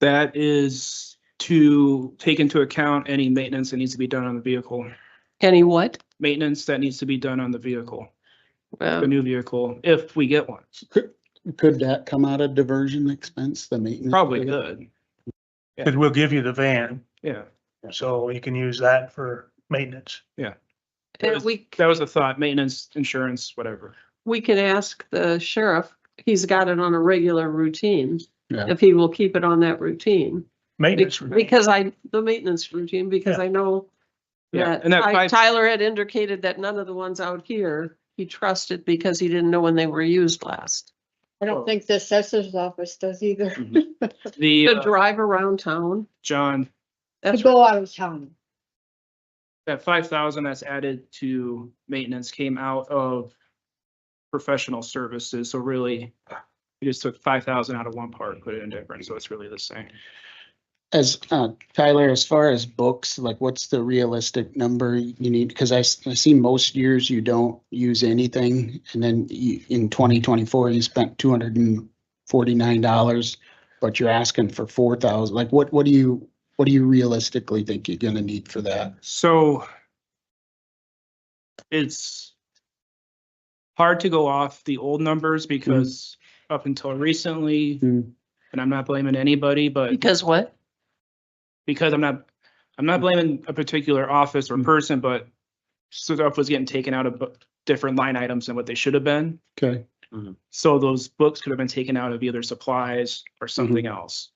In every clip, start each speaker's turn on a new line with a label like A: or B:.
A: That is to take into account any maintenance that needs to be done on the vehicle.
B: Any what?
A: Maintenance that needs to be done on the vehicle, the
B: Well,
A: new vehicle, if we get one.
C: Could that come out of diversion expense, the maintenance?
A: Probably could,
D: Because we'll give you the van,
A: yeah.
D: so you can use that for maintenance.
B: and eh, we,
A: That was a thought, maintenance, insurance, whatever.
B: we can ask the sheriff, he's got it on a regular routine,
C: Yeah.
B: if he will keep it on that routine. Be-
D: Maintenance,
B: Because I, the maintenance routine, because
D: Yeah.
B: I know
A: Yeah,
B: that
A: and that
B: Ty-
A: five,
B: Tyler had indicated that none of the ones out here he trusted because he didn't know when they were used last.
A: Oh.
E: I don't think the assessor's office does either.
A: Mhm.
B: To
A: the, uh,
B: drive around town,
A: John,
E: To
B: that's,
E: go out of town.
A: that five thousand that's added to maintenance came out of professional services, so really, we just took five thousand out of one part, and put it in different, so it's really the same.
C: As, uh, Tyler, as far as books, like what's the realistic number you need? Cause I, s- I see most years you don't use anything. And then you, in twenty twenty-four, you spent two hundred and forty-nine dollars, but you're asking for four thousand. Like what, what do you, what do you realistically think you're gonna need for that?
A: So it's hard to go off the old numbers because up until recently,
C: Mm.
A: and I'm not blaming anybody, but
B: because what?
A: because I'm not, I'm not blaming a particular office or person, but stuff was getting taken out of bu- different line items than what they should have been.
C: Okay.
A: So those books could have been taken out of either supplies or something else.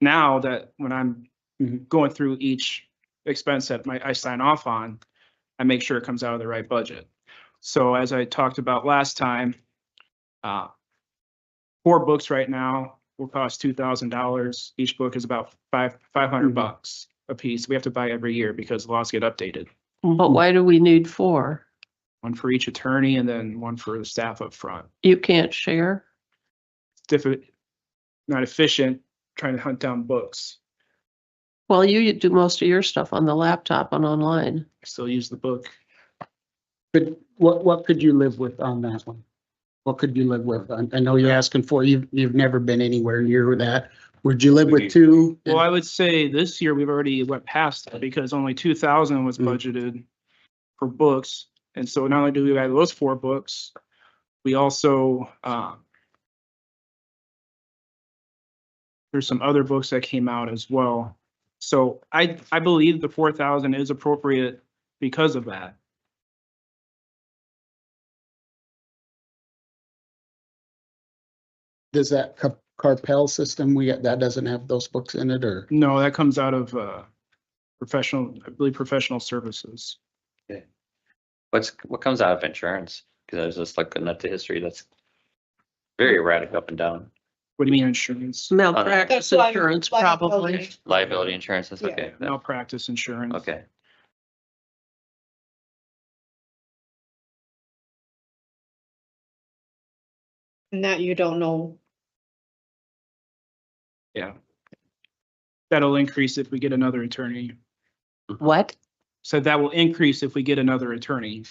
A: Now that when I'm
C: Mhm.
A: going through each expense that my, I sign off on, I make sure it comes out of the right budget. So as I talked about last time, uh, four books right now will cost two thousand dollars. Each book is about five, five hundred
C: Mhm.
A: bucks a piece. We have to buy every year because laws get updated.
B: But why do we need four?
A: One for each attorney and then one for the staff up front.
B: You can't share?
A: diffi- not efficient trying to hunt down books.
B: Well, you do most of your stuff on the laptop and online.
A: I still use the book.
C: But what, what could you live with on that one? What could you live with? I, I know you're asking for, you've, you've never been anywhere near that. Would you live with two?
A: Well, I would say this year we've already went past that because only two thousand was
C: Mm.
A: budgeted for books. And so not only do we have those four books, we also, um, there's some other books that came out as well. So I, I believe the four thousand is appropriate because of that.
C: Does that Car- carpel system, we, that doesn't have those books in it or?
A: No, that comes out of, uh, professional, I believe, professional services.
F: What's, what comes out of insurance? Cause I was just looking at the history, that's very erratic up and down.
A: What do you mean insurance?
B: Malpractice
E: That's why-
B: insurance,
E: why-
B: probably.
F: Liability insurance, that's
E: Yeah.
F: okay. that-
A: Malpractice insurance.
F: Okay,
E: And that you don't know.
A: That'll increase if we get another attorney.
B: What?
A: So that will increase if we get another attorney.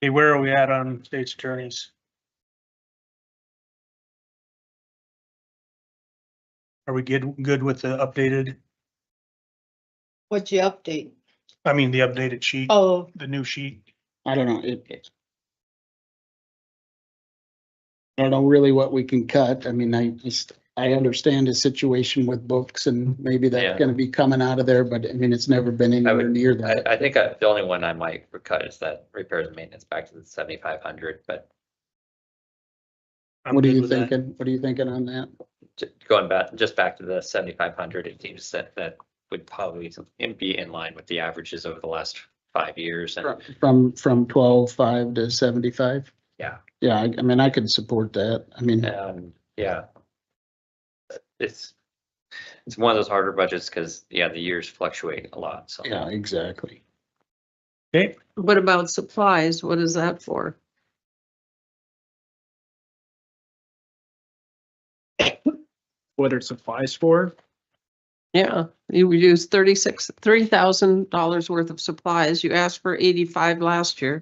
D: Hey, where are we at on state's attorneys? Are we good, good with the updated,
E: What's your update?
D: I mean, the updated sheet,
E: Oh,
D: the new sheet?
C: I don't know, it. I don't know really what we can cut. I mean, I just, I understand the situation with books and maybe
F: Yeah.
C: that's gonna be coming out of there, but I mean, it's never been anywhere
F: would-
C: near
F: I,
C: that.
F: I think I- the only one I might cut is that repairs and maintenance back to the seventy-five hundred, but
D: I'm
C: What are
D: good
C: you
D: with that.
C: thinking? What are you thinking on that?
F: ju- going back, just back to the seventy-five hundred, it seems that that would probably be in line with the averages over the last five years and
C: From, from twelve, five to seventy-five?
F: Yeah.
C: Yeah, I, I mean, I could support that. I mean,
F: Um, yeah. It's, it's one of those harder budgets because, yeah, the years fluctuate a lot, so.
C: yeah, exactly.
D: Okay,
B: What about supplies? What is that for?
A: What are supplies for?
B: Yeah, you used thirty-six, three thousand dollars worth of supplies. You asked for eighty-five last year.